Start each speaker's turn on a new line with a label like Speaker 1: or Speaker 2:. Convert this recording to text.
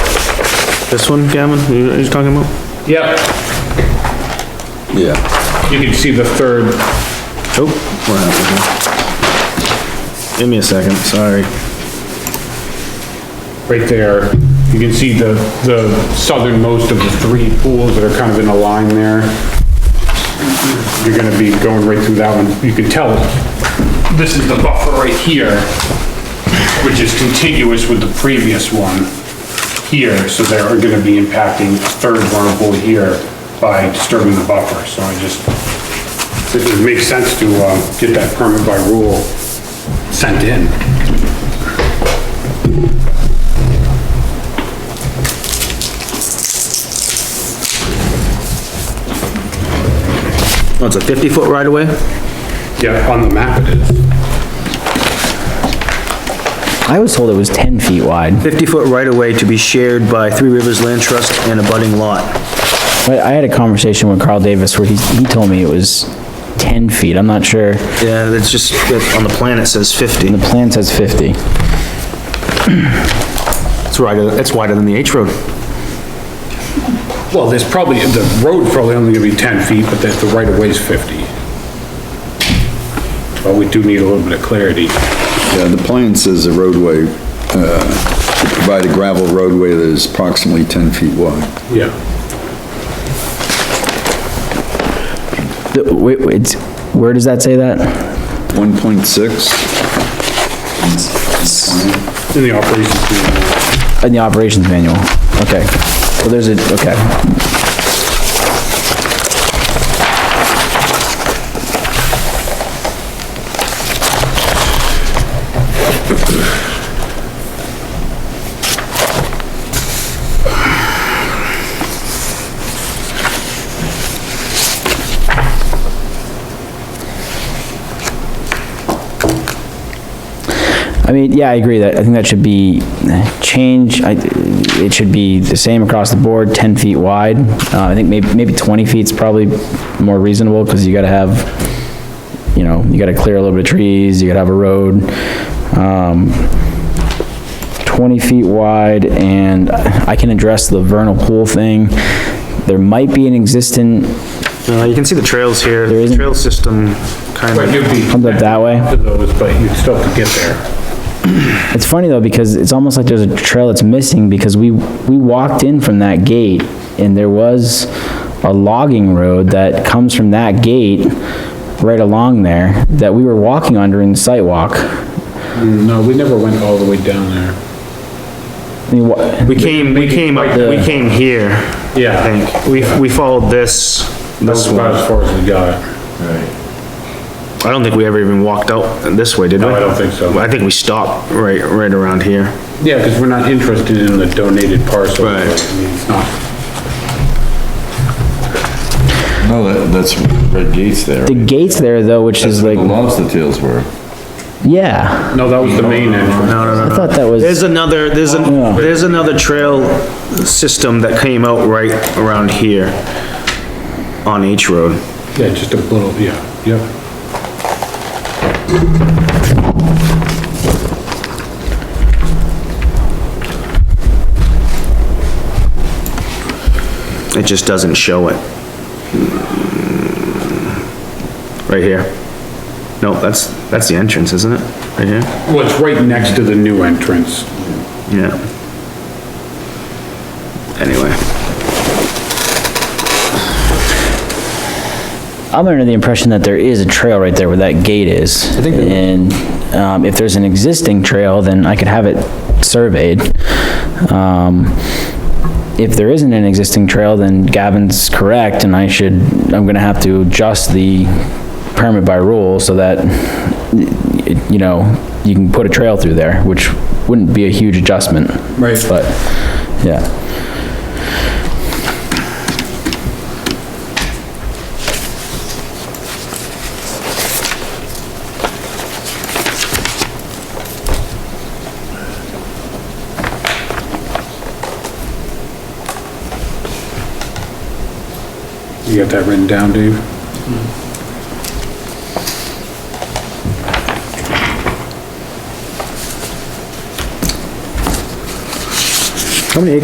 Speaker 1: This one, Gavin, you- you're talking about?
Speaker 2: Yep,
Speaker 3: Yeah.
Speaker 2: you can see the third,
Speaker 1: Oh, what happened here? Give me a second, sorry.
Speaker 2: right there. You can see the, the southernmost of the three pools that are kind of in a line there. You're gonna be going right through that one. You can tell, this is the buffer right here, which is contiguous with the previous one here, so they're gonna be impacting the third vulnerable here by disturbing the buffer, so I just, it would make sense to, um, get that permit by rule sent in.
Speaker 1: Oh, it's a 50-foot right-of-way?
Speaker 2: Yeah, on the map it is.
Speaker 4: I was told it was 10 feet wide,
Speaker 1: 50-foot right-of-way to be shared by Three Rivers Land Trust and a budding lot.
Speaker 4: but I had a conversation with Carl Davis where he, he told me it was 10 feet, I'm not sure.
Speaker 1: Yeah, that's just, that- on the plan it says 50.
Speaker 4: The plan says 50.
Speaker 1: It's wider, it's wider than the H road.
Speaker 2: Well, there's probably, the road's probably only gonna be 10 feet, but the, the right of way's 50. But we do need a little bit of clarity.
Speaker 3: Yeah, Uh, the plan says a roadway, uh, to provide a gravel roadway that is approximately 10 feet wide.
Speaker 2: Yeah.
Speaker 4: The- Wait, wait, where does that say that?
Speaker 3: 1.6,
Speaker 2: In the operations manual.
Speaker 4: In the operations manual, okay. Well, there's a, okay. I mean, yeah, I agree that, I think that should be eh, change, I, it should be the same across the board, ten feet wide. Uh, I think maybe, maybe twenty feet's probably more reasonable, cause you gotta have, you know, you gotta clear a little bit of trees, you gotta have a road. Um, twenty feet wide, and I can address the vernal pool thing. There might be an existing,
Speaker 1: Uh, you can see the trails here,
Speaker 4: There
Speaker 1: the
Speaker 4: isn't-
Speaker 1: trail system kind
Speaker 2: But
Speaker 1: of,
Speaker 2: you'd be.
Speaker 4: Comes up that way?
Speaker 2: To those, but you'd still have to get there.
Speaker 4: It's funny though, because it's almost like there's a trail that's missing because we, we walked in from that gate and there was a logging road that comes from that gate right along there that we were walking on during the sidewalk.
Speaker 2: Mm, No, we never went all the way down there.
Speaker 4: I mean, wha-
Speaker 1: we came, we came, up- we
Speaker 4: The-
Speaker 1: came here.
Speaker 2: Yeah.
Speaker 1: I think, we, we followed this,
Speaker 2: That's
Speaker 1: this
Speaker 2: about
Speaker 1: one.
Speaker 2: as far as we got.
Speaker 1: I don't think we ever even walked out this way, did we?
Speaker 2: No, I don't think so.
Speaker 1: I think we stopped right, right around here.
Speaker 2: Yeah, because we're not interested in the donated parcel.
Speaker 1: Right.
Speaker 2: I mean, It's not,
Speaker 5: No, that, that's Red Gates there.
Speaker 4: the gate's there though, which is
Speaker 5: The
Speaker 4: like,
Speaker 5: lobster tails were.
Speaker 4: yeah,
Speaker 2: no, that was the main entrance.
Speaker 1: No, no, no,
Speaker 4: I
Speaker 1: no.
Speaker 4: thought that
Speaker 1: There's
Speaker 4: was,
Speaker 1: another, there's an, there's another trail system that came out right around here on H Road.
Speaker 2: Yeah, just a little, yeah, yeah.
Speaker 1: It just doesn't show it. Right here. No, that's, that's the entrance, isn't it? Right here?
Speaker 2: Well, it's right next to the new entrance.
Speaker 1: Yeah. Anyway,
Speaker 4: I'm under the impression that there is a trail right there where that gate is. I think. And, um, if there's an existing trail, then I could have it surveyed. Um, if there isn't an existing trail, then Gavin's correct, and I should, I'm gonna have to adjust the permit by rule so that, y- you know, you can put a trail through there, which wouldn't be a huge adjustment.
Speaker 2: Right.
Speaker 4: But, yeah,
Speaker 2: You got that written down, Dave?